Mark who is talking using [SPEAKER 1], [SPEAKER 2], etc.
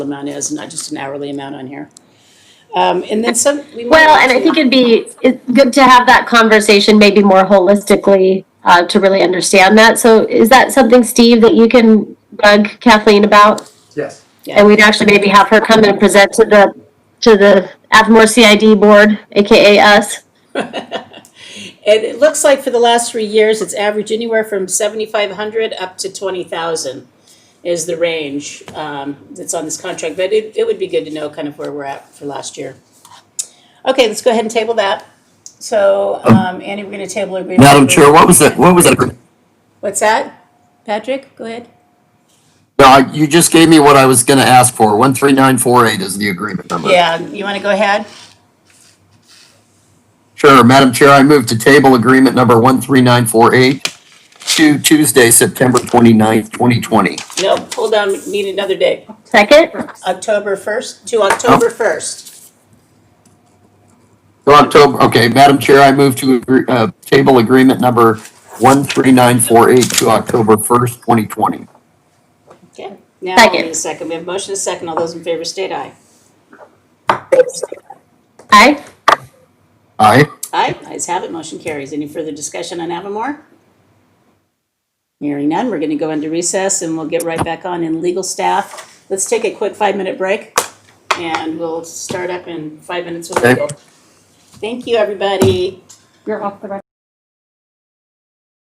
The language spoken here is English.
[SPEAKER 1] amount is, not just an hourly amount on here. Um, and then some. we might
[SPEAKER 2] Well,
[SPEAKER 1] want
[SPEAKER 2] and I
[SPEAKER 1] to-
[SPEAKER 2] think it'd be it's good to have that conversation maybe more holistically uh, to really understand that. So is that something, Steve, that you can bug Kathleen about?
[SPEAKER 3] Yes.
[SPEAKER 2] And we'd actually maybe have her come and present to the, to the Avamore CID board, AKA us.
[SPEAKER 1] It, it looks like for the last three years, it's averaged anywhere from seventy-five hundred up to twenty thousand is the range, um, that's on this contract, but it, it would be good to know kind of where we're at for last year. Okay, let's go ahead and table that. So, um, Andy, we're gonna table it.
[SPEAKER 4] Oh. Madam Chair, what was that, what was that?
[SPEAKER 1] What's that? Patrick, go ahead.
[SPEAKER 4] Uh, you just gave me what I was gonna ask for. One three nine four eight is the agreement number.
[SPEAKER 1] Yeah, you wanna go ahead?
[SPEAKER 4] Sure, Madam Chair, I move to table agreement number one three nine four eight to Tuesday, September twenty-ninth, twenty twenty.
[SPEAKER 1] No, hold on, we need another day.
[SPEAKER 2] Second?
[SPEAKER 1] October first, to
[SPEAKER 4] Oh.
[SPEAKER 1] October first.
[SPEAKER 4] October, okay, Madam Chair, I move to, agree- uh, table agreement number one three nine four eight to October first, twenty twenty.
[SPEAKER 1] Okay, now we
[SPEAKER 2] Second.
[SPEAKER 1] need a second. We have a motion and a second. All those in favor state aye.
[SPEAKER 2] Aye?
[SPEAKER 4] Aye?
[SPEAKER 1] Aye, ayes have it, motion carries. Any further discussion on Avamore? Hearing none, we're gonna go into recess and we'll get right back on in legal staff. Let's take a quick five-minute break and we'll start up in five minutes with
[SPEAKER 4] Okay.
[SPEAKER 1] legal. Thank you, everybody.
[SPEAKER 2] You're off the record.